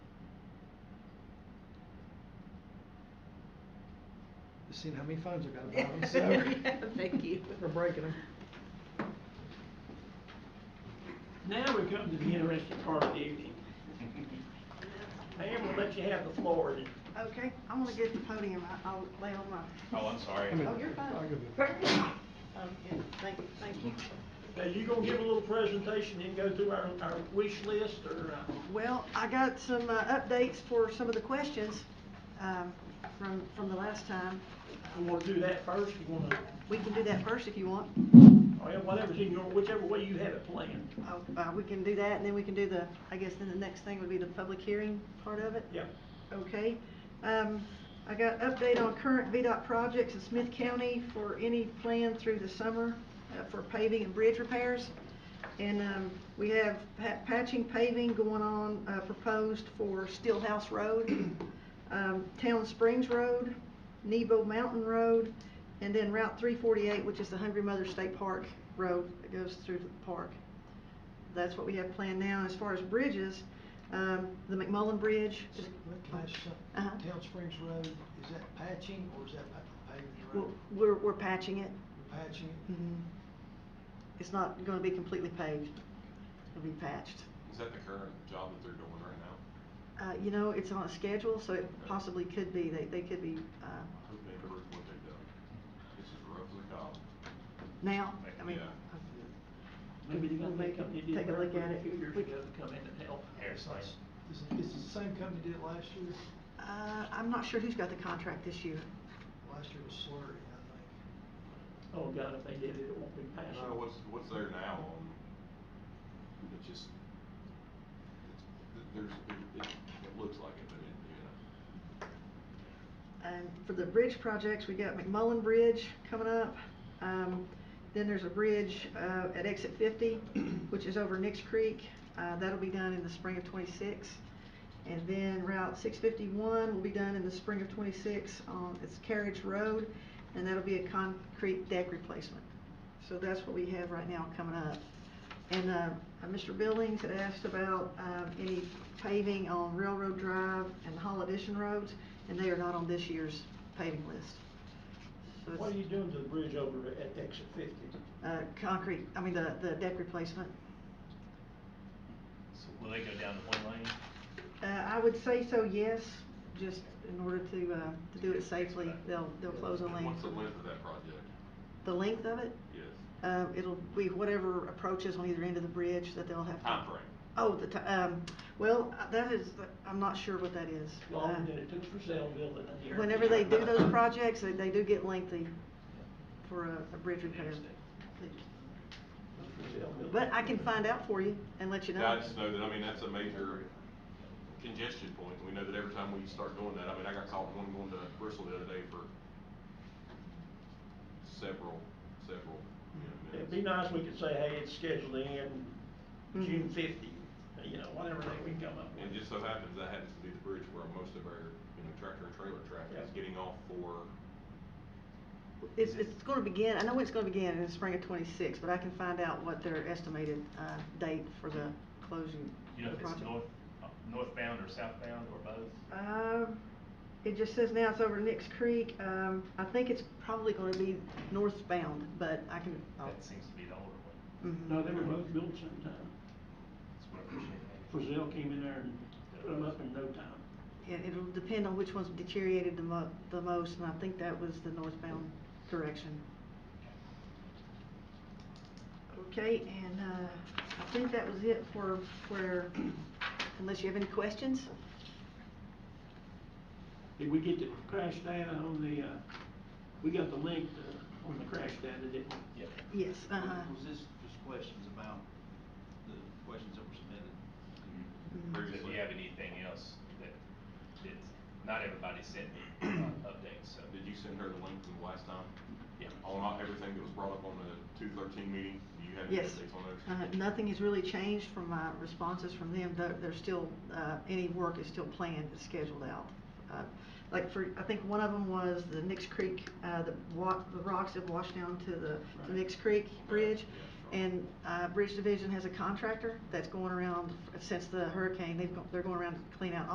You've seen how many phones I've got about them, so Yeah, Thank you. we're breaking them. Now we come to the interesting part of the evening. Pam, we'll let you have the floor. Okay, I wanna get the podium, I- I'll lay on my, Oh, I'm sorry. I mean, Oh, you're fine. I'll give you- oh, yeah, thank, you, thank you. Now, you gonna give a little presentation, then go through our, our wish list, or, uh, Well, I got some uh, updates for some of the questions um, from, from the last time. you wanna do that first, you wanna, We can do that first if you want. or whatever's in your, whichever way you have it planned. Oh, uh, We can do that, and then we can do the, I guess then the next thing would be the public hearing part of it. Yeah. Okay. Um, I got update on current VDOT projects in Smith County for any plan through the summer uh, for paving and bridge repairs. And um, we have pa- patching paving going on, uh, proposed for Steelhouse Road, um, Town Springs Road, Nebo Mountain Road, and then Route 348, which is the Hungry Mother State Park Road that goes through the park. That's what we have planned now. As far as bridges, um, the McMullen Bridge is Uh-huh. Town Springs Road, is that patching or is that pa- paved We're- road? We're, we're patching it. Patching it? hmm. It's not gonna be completely paved. It'll be patched. Is that the current job that they're doing right now? Uh, you know, it's on a schedule, so it possibly could be, they, they could be, I uh, hope they never do what they've done. This is rough as a dog. now, I mean. Yeah. Maybe they're We'll gonna make make up, them they did take a look at Burnford a it. few years We- ago to come in and help. Airside. Is it, is it the same company did it last year? Uh, I'm not sure who's got the contract this year. Last year was slurry, I Oh, God, if they did it, it won't be passed. No, Uh, what's, what's there now on, it just, it's, th- there's, it, it- it looks like it, but it, you know. And for the bridge projects, we got McMullen Bridge coming up. Um, then there's a bridge, uh, at exit fifty, which is over Nix Creek. Uh, that'll be done in the spring of twenty-six. And then Route six fifty-one will be done in the spring of twenty-six on, it's Carriage Road, and that'll be a concrete deck replacement. So that's what we have right now coming up. And, uh, uh, Mr. Billings had asked about, um, any paving on Railroad Drive and Hollidition Roads, and they are not on this year's paving list. So What are it's- you doing to the bridge over at exit fifty? Uh, concrete, I mean, the, the deck replacement. So will they go down to one lane? Uh, I would say so, yes, just in order to, uh, to do it safely, they'll, they'll close a And lane. What's the length of that project? The length of it? Yes. Uh, it'll be whatever approaches on either end of the bridge that they'll have. to- Timeframe. Oh, the ti- um, well, uh, that is, I'm not sure what that is. Long Uh, did it took for Zellville and here. Whenever they do those projects, they, they do get lengthy for a, a bridge repair. Interesting. But I can find out for you and let you know. Yeah, I just know that, I mean, that's a major congestion point. We know that every time we start doing that, I mean, I got caught one going to Bristol the other day for several, several, you know, It'd minutes. be nice, we could say, hey, it's scheduled in Mm-hmm. June fifty, you know, whatever day we come up And with. it just so happens that happens to be the bridge where most of our, you know, tractor and trailer traffic is Yeah. getting off for, It's, it's gonna begin, I know it's gonna begin in the spring of twenty-six, but I can find out what their estimated, uh, date for the closing. You know of if the it's project. north, uh, northbound or southbound or both? Um, it just says now it's over Nix Creek, um, I think it's probably gonna be northbound, but I can. oh. I'll- That seems to be the older one. Mhm. No, they were both built sometime. That's what I appreciate. Frisell came in there and put them up in no time. It, it'll depend on which one's deteriorated the mo- the most, and I think that was the northbound direction. Okay, and, uh, I think that was it for, for, unless you have any questions? Did we get the crash data on the, uh, we got the link uh, on the crash data, didn't we? Yeah. Yes, uh-huh. Was this just questions about the questions that were submitted? Mhm. If you have anything else that, that's, not everybody sent me uh, updates, so. did you send her the link from last time? Yeah. On all- everything that was brought up on the two thirteen meeting, do you have any Yes. updates on those? Uh, nothing has really changed from my responses from them, though there's still, uh, any work is still planned and scheduled out. Uh, Like for, I think one of them was the Nix Creek, uh, the wa- the rocks have washed down to the, the Nix Creek Bridge. Yeah, sure. And, uh, Bridge Division has a contractor that's going around, since the hurricane, they've, go- they're going around to clean out